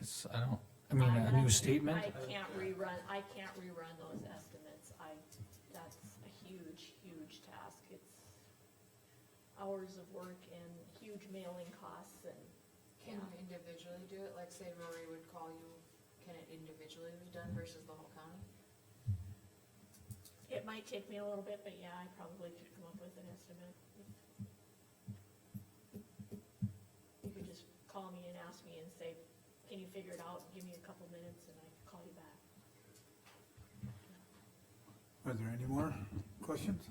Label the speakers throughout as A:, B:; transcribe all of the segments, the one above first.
A: it's, Um, I don't, I mean,
B: I-
A: a new
B: that's-
A: statement?
B: I can't rerun, I can't rerun those estimates, I, that's a huge, huge task, it's hours of work and huge mailing costs and,
C: Can you individually do it? Like say Rory would call you, can it individually be done versus the whole county?
B: it might take me a little bit, but yeah, I probably could come up with an estimate. You could just call me and ask me and say, can you figure it out, give me a couple minutes and I can call you back.
D: Are there any more questions?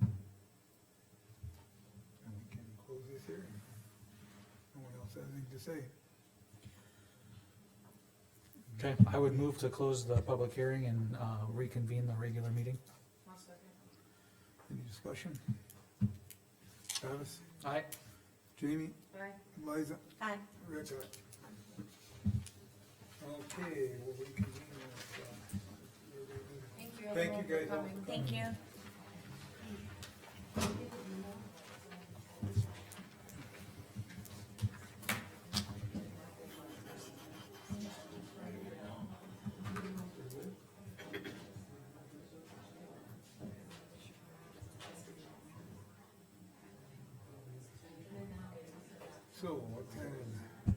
D: And we can close this hearing. No one else has anything to say.
A: Okay, I would move to close the public hearing and, uh, reconvene the regular meeting.
C: One second.
D: Any discussion? Travis,
A: Aye.
D: Jamie,
C: Aye.
D: Liza,
B: Hi.
D: Rick, aye. Okay, well, we can. uh,
C: Thank you
D: Thank
C: everyone
D: you
C: for
D: guys all.
C: coming.
B: Thank you.
D: So what kind of,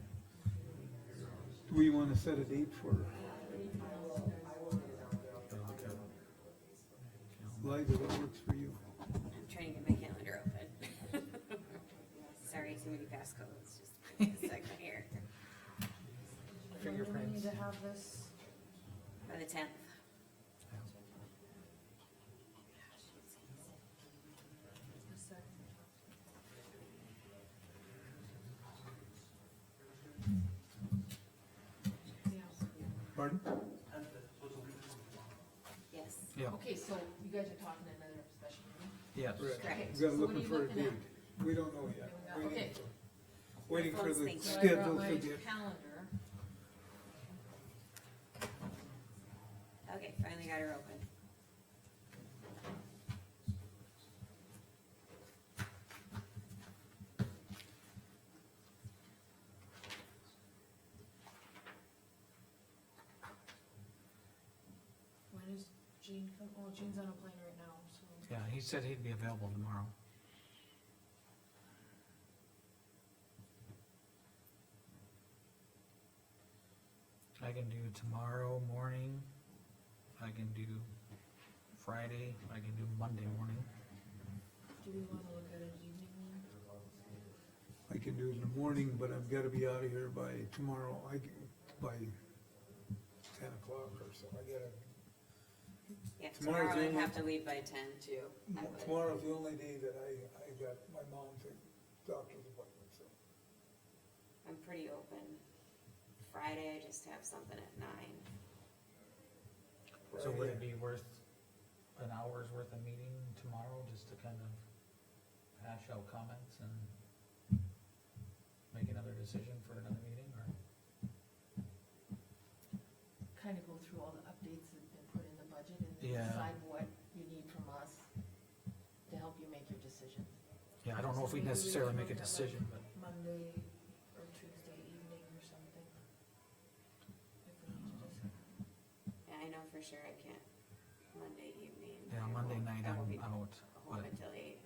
D: do we wanna set a date for? Liza, that works for you.
E: I'm trying to get my calendar open. Sorry, too many passcodes, just a second here.
C: When do we need to have this?
E: By the tenth.
C: One second.
D: Pardon?
E: Yes,
A: Yeah,
C: Okay, so you guys are talking at another special meeting?
A: yes.
E: correct.
D: We gotta
C: So what are
D: looking
C: you
D: for a
C: looking at?
D: date. We don't know yet.
C: Okay.
D: Waiting for- Waiting for the
E: Thank you.
C: So I brought
D: schedule
C: my
D: to get,
C: calendar.
E: Okay, finally got her open.
C: When is Jean, come- oh, Jean's on a plane right now, so.
A: Yeah, he said he'd be available tomorrow. I can do tomorrow morning, I can do Friday, I can do Monday morning.
C: Do we wanna look at an evening one?
D: I can do it in the morning, but I've gotta be out of here by tomorrow, I, can- by ten o'clock or so. I gotta,
E: Yeah,
D: Tomorrow's
E: tomorrow I'd
D: the
E: have to leave by ten too.
A: Mm-hmm.
E: I would.
D: tomorrow's the only day that I, I got my mom's doctor's appointment, so.
E: I'm pretty open. Friday, I just have something at nine.
A: So would it be worth an hour's worth of meeting tomorrow, just to kind of hash out comments and make another decision for another meeting, or?
F: kind of go through all the updates that have been put in the budget and
A: Yeah.
F: then decide what you need from us to help you make your decision.
A: Yeah, I don't know if we necessarily make a decision, but.
C: Monday or Tuesday evening or something. If we need to just-
E: Yeah, I know for sure I can't Monday evening.
A: Yeah,
E: I
A: Monday
E: won't-
A: night
E: I
A: I'm
E: won't be
A: out, but
E: Home until eight.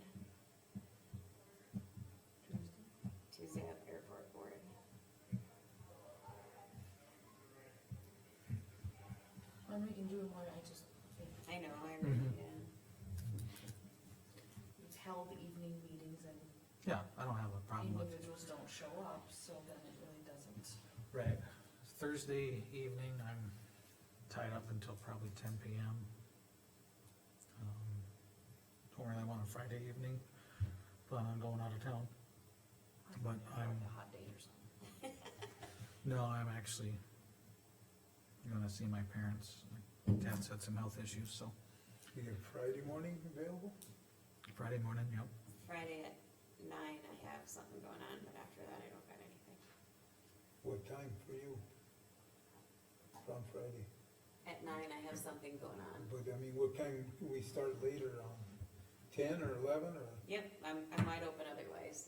E: Tuesday I have airport board.
C: Then we can do it when I just, think
E: I know, I really,
A: Mhm.
E: yeah.
C: we've held evening meetings and
A: yeah, I don't have a problem with it.
C: individuals don't show up, so then it really doesn't.
A: Right. Thursday evening, I'm tied up until probably ten PM. Um, Don't really want a Friday evening, plan on going out of town. But I'm-
C: A hot date or something.
A: No, I'm actually gonna see my parents. My Dad's had some health issues, so
D: You got Friday morning available?
A: Friday morning, yep.
E: Friday at nine, I have something going on, but after that, I don't got anything.
D: What time for you? On Friday,
E: At nine, I have something going on.
D: but I mean, what time, we start later on Um, ten or eleven or?
E: Yep, I'm, I'm wide open otherwise.